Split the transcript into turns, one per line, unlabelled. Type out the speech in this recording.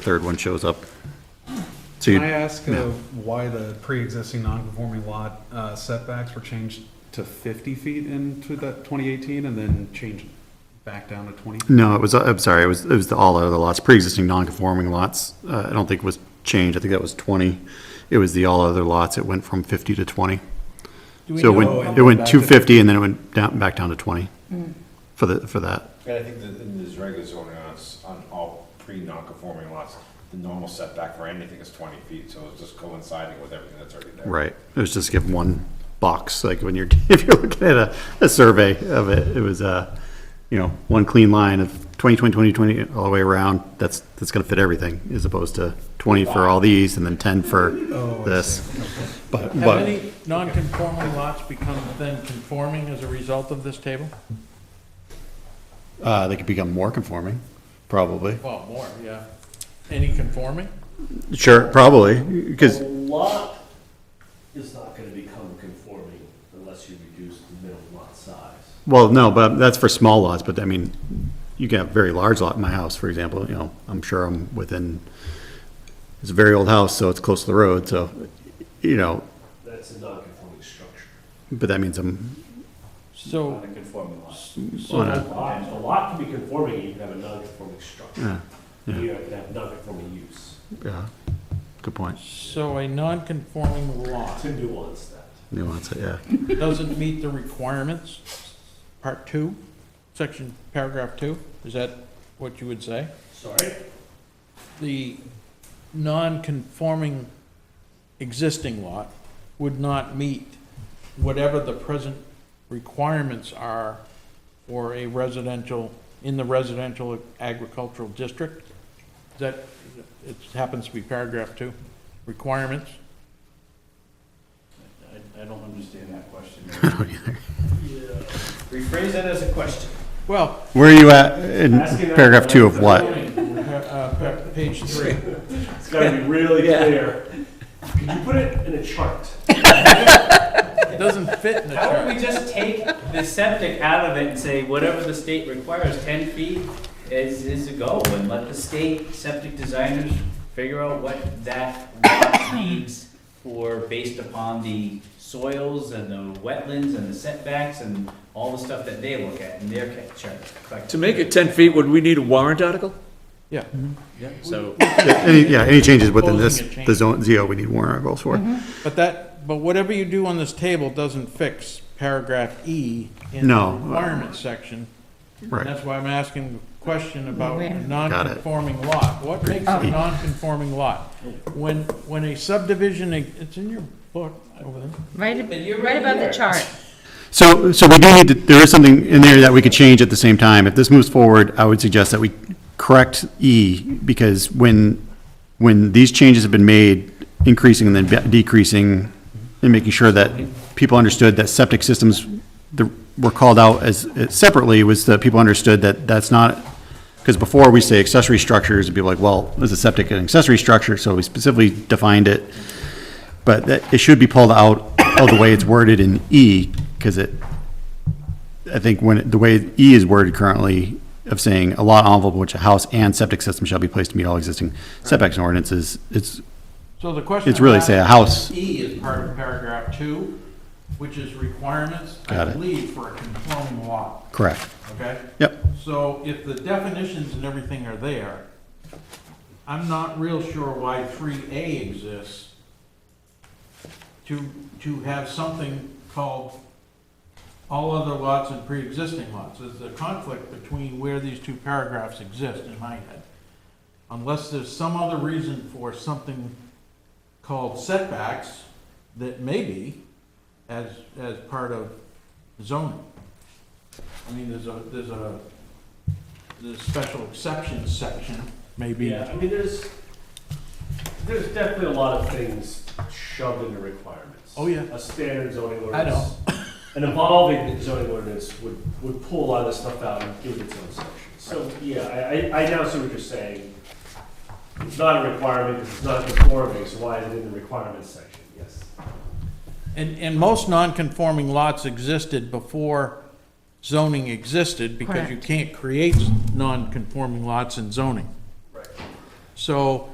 third one shows up. So
Can I
you,
ask uh, why the pre-existing non-conforming lot uh, setbacks were changed to 50 feet into that 2018 and then changed back down to 20?
no, it was, I'm sorry, it was, it was the, all other lots, pre-existing non-conforming lots. Uh, I don't think was changed. I think that was 20. It was the all other lots. It went from 50 to 20.
Do we
So it
know-
went, it went 250 and then it went down, back down to 20
Mm.
for the, for that.
And I think that in this regular zoning on, s- on all pre non-conforming lots, the normal setback for anything is twenty feet, so it's just coinciding with everything that's already there.
Right. It was just give one box, like when you're, if you're looking at a, a survey of it, it was a, you know, one clean line of 20, 20, 20, 20, all the way around. That's, that's going to fit everything as opposed to 20 for all these and then 10 for
Oh,
this. But,
Have
but
any non-conforming lots become then conforming as a result of this table?
uh, they could become more conforming, probably.
Well, more, yeah. Any conforming?
Sure, probably, because,
A lot is not gonna become conforming unless you reduce the minimum lot size.
well, no, but that's for small lots, but I mean, you can have a very large lot in my house, for example, you know, I'm sure I'm within, it's a very old house, so it's close to the road, so, you know,
That's a non-conforming structure.
But that means I'm, Oh.
So,
Conforming lot.
so,
A lot, a lot can be conforming, you can have a non-conforming structure. You can have non-conforming use,
yeah, good point.
so a non-conforming lot
to nuance that.
Nuance, yeah.
doesn't meet the requirements, part two, section, paragraph two, is that what you would say?
Sorry?
The non-conforming existing lot would not meet whatever the present requirements are for a residential, in the residential agricultural district? That, it happens to be paragraph two, requirements?
I, I don't understand that question.
I don't either.
Rephrase that as a question.
Well,
Where are you at in
Asking that-
paragraph two of what?
uh, uh, page three.
It's gotta be really clear. Could you put it in a chart?
It doesn't fit in the
How about
chart.
we just take the septic out of it and say, whatever the state requires, ten feet is, is a go, and let the state septic designers figure out what that lot needs for, based upon the soils and the wetlands and the setbacks and all the stuff that they look at in their ca- chart. Like-
To make it 10 feet, would we need a warrant article?
Yeah.
Yeah, So,
Yeah, Any, yeah, any changes within this,
Proposing a change. Mm-hmm.
the zone, ZO, we need warrant articles for.
But that, but whatever you do on this table doesn't fix paragraph E in the
No.
requirements section. And
Right.
that's why I'm asking the question about
Where?
a
Got it.
non-conforming lot. What makes
Oh.
a non-conforming lot? When, when a subdivision, it's in your book over there.
Right,
But you're
ab-
right
right about
here.
the chart.
So, so we do need to, there is something in there that we could change at the same time. If this moves forward, I would suggest that we correct E, because when, when these changes have been made, increasing and then decreasing, and making sure that people understood that septic systems the- were called out as, as separately, was that people understood that that's not, because before we say accessory structures, and people are like, well, is a septic an accessory structure? So we specifically defined it. But that, it should be pulled out of the way it's worded in E, because it, I think when, it- the way E is worded currently of saying a lot envelope which a house and septic system shall be placed to meet all existing setbacks and ordinances, it's,
So the question.
it's really
I'm
say a
asking-
house,
E is part of paragraph two, which is requirements, I
Got it.
believe, for a conforming lot,
correct.
okay?
Yep,
So if the definitions and everything are there, I'm not real sure why three A exists to, to have something called all other lots and pre-existing lots. There's a conflict between where these two paragraphs exist in my head. Unless there's some other reason for something called setbacks that may be as, as part of zoning. I mean, there's a, there's a, the special exceptions section, maybe.
Yeah, I mean, there's, there's definitely a lot of things shoved into requirements.
Oh, yeah.
A standard zoning
I know.
ordinance. An evolving zoning ordinance would, would pull a lot of this stuff out and give it its own section. So, yeah, I, I, I now see what you're saying. It's not a requirement, because it's not conforming, so why is it in the requirements section? Yes.
And, and most non-conforming lots existed before zoning existed because you
Correct.
can't create non-conforming lots in zoning.
Right.
So